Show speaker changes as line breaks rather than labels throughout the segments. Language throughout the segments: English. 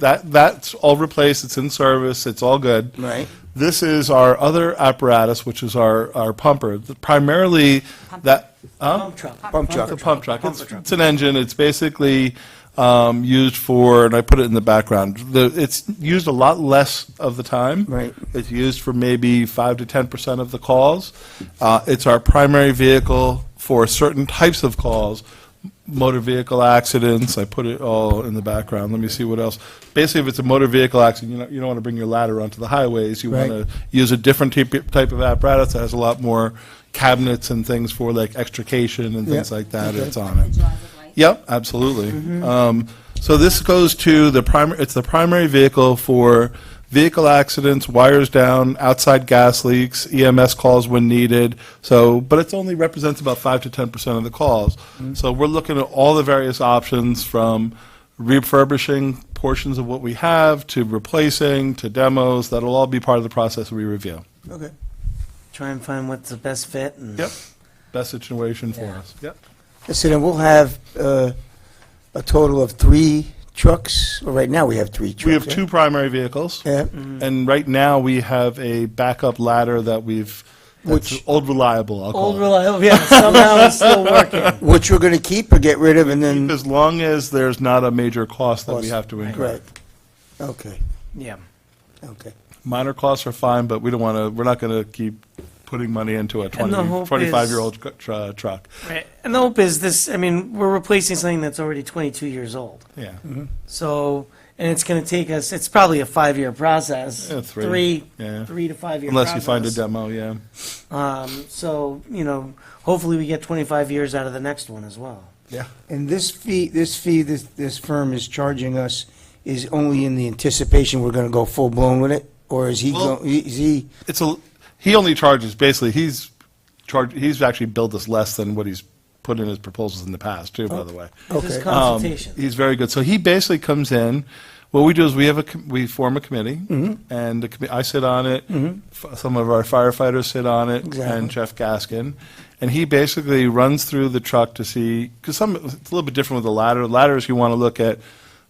That, that's all replaced, it's in service, it's all good.
Right.
This is our other apparatus, which is our, our pumper, primarily that. huh?
Pump truck.
Pump
It's a
truck.
pump truck. It's, it's an engine. It's basically um, used for, and I put it in the background. The, it's used a lot less of the time.
Right.
It's used for maybe five to ten percent of the calls. Uh, it's our primary vehicle for certain types of calls, motor vehicle accidents. I put it all in the background. Let me see what else. Basically, if it's a motor vehicle accident, you don't, you don't want to bring your ladder onto the highways. You
Right.
want to use a different type type of apparatus that has a lot more cabinets and things for like extrication and things
Yeah,
like that.
okay.
It's on it. Yep, absolutely. Um, So this goes to the primary, it's the primary vehicle for vehicle accidents, wires down, outside gas leaks, EMS calls when needed. So, but it's only represents about 5 to 10% of the calls. So we're looking at all the various options from refurbishing portions of what we have to replacing to demos. That'll all be part of the process we review.
Okay.
Try and find what's the best fit and.
Yep. Best situation for us. Yep.
So then we'll have uh, a total of three trucks, well, right now we have three trucks.
We have
right?
two primary vehicles.
Yeah,
Mm-hmm.
And right now, we have a backup ladder that we've, that's
Which-
old reliable, I'll
Old
call it.
reliable, yeah, somehow it's still working.
which we're gonna keep or get rid of and then,
As long as there's not a major cost that we
Cost,
have to incur.
right. Okay,
Yeah.
okay.
Minor costs are fine, but we don't want to, we're not going to keep putting money into a
And the
20,
hope is-
25-year-old cu- tru- truck.
Right. And the hope is this, I mean, we're replacing something that's already 22 years old.
Yeah.
Mm-hmm.
So, and it's going to take us, it's probably a five-year process.
Yeah, three. Yeah.
Three, three to five-year process.
Unless you find a demo, yeah.
Um, so, you know, hopefully we get 25 years out of the next one as well.
Yeah.
And this fee, this fee this, this firm is charging us is only in the anticipation we're gonna go full blown with it? Or is he,
Well-
go- is he,
It's a, he only charges, basically, he's charged, he's actually billed us less than what he's put in his proposals in the past, too,
Oh.
by the way.
It's just
Okay.
Um,
consultation.
He's very good. So he basically comes in. What we do is we have a com- we form a committee,
Mm-hmm.
and the commi- I sit on it. f- Some of our firefighters sit on it,
Exactly.
and Jeff Gaskin, and he basically runs through the truck to see because some it's a little bit different with the ladder. Ladders you want to look at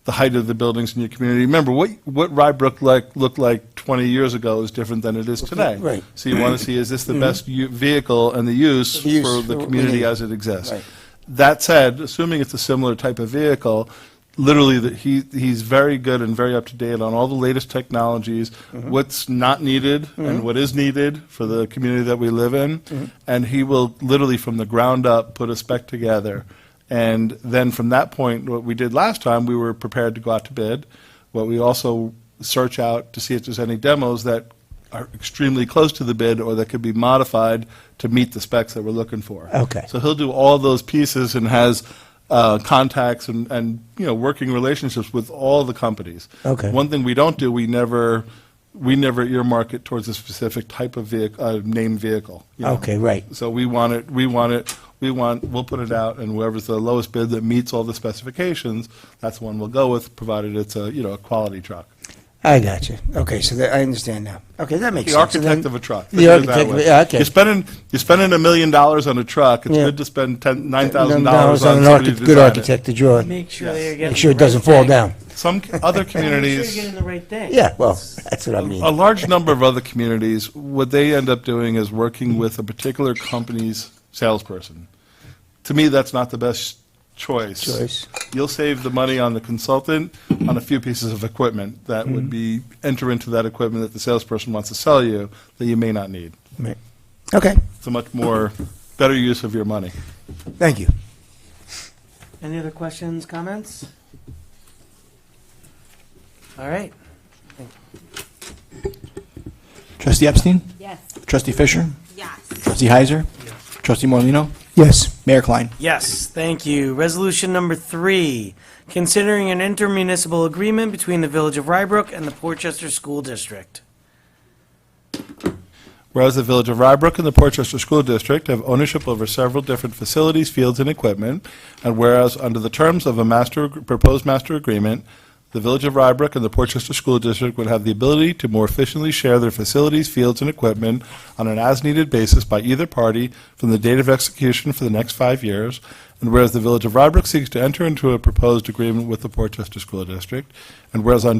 the height of the buildings in your community. Remember what what Rybrook like looked like 20 years ago is different than it is today.
right. Mm-hmm.
So you want to see is this the best u- vehicle and the use,
The use
for
for
the
what we
community
need.
as it exists.
Right.
That said, assuming it's a similar type of vehicle, literally, that he, he's very good and very up to date on all the latest technologies,
Mm-hmm.
what's not needed and what is needed for the community that we live in.
Mm-hmm.
And he will literally, from the ground up, put a spec together. And then from that point, what we did last time, we were prepared to go out to bid. What we also search out to see if there's any demos that are extremely close to the bid or that could be modified to meet the specs that we're looking for.
Okay.
So he'll do all those pieces and has uh, contacts and, and, you know, working relationships with all the companies.
Okay.
One thing we don't do, we never, we never earmark it towards a specific type of vehicle, uh, named vehicle. you know.
okay, right.
So we want it, we want it, we want, we'll put it out, and whoever's the lowest bid that meets all the specifications, that's the one we'll go with, provided it's a, you know, a quality truck.
I got you. Okay, so that, I understand now. Okay, that makes
The
sense. So
architect
then-
of a truck.
The
Think of it that
architect of
way.
it, yeah, okay.
You're spending, you're spending a million dollars on a truck, it's
Yeah.
good to spend ten, nine thousand dollars
$9,000
on somebody
an
to
architect- Good
design it.
architect to draw it.
Make sure
Yes.
they're getting.
Make sure it
the right
doesnc fall
thing.
down.
Some c- other
Make sure you're
communities,
getting the right thing.
Yeah, well, that's what I mean.
a large number of other communities, what they end up doing is working
Mm-hmm.
with a particular company's salesperson. To me, that's not the best choice.
Choice.
You'll save the money on the consultant, on a few pieces of equipment that would
Mm-hmm.
be, enter into that equipment that the salesperson wants to sell you that you may not need.
Right. Okay,
It's a much more, better use of your money.
thank you.
Any other questions, comments? All right.
Trustee Epstein?
Yes.
Trustee Fisher?
Yes.
Trustee Heiser? Trustee Morlino,
Yes.
Mayor Klein?
Yes, thank you. Resolution number three, considering an intermunicipal agreement between the Village of Rybrook and the Portchester School District.
Whereas the Village of Rybrook and the Portchester School District have ownership over several different facilities, fields, and equipment, and whereas under the terms of a master, proposed master agreement, the Village of Rybrook and the Portchester School District would have the ability to more efficiently share their facilities, fields, and equipment on an as-needed basis by either party from the date of execution for the next five years, and whereas the Village of Rybrook seeks to enter into a proposed agreement with the Portchester School District, and whereas on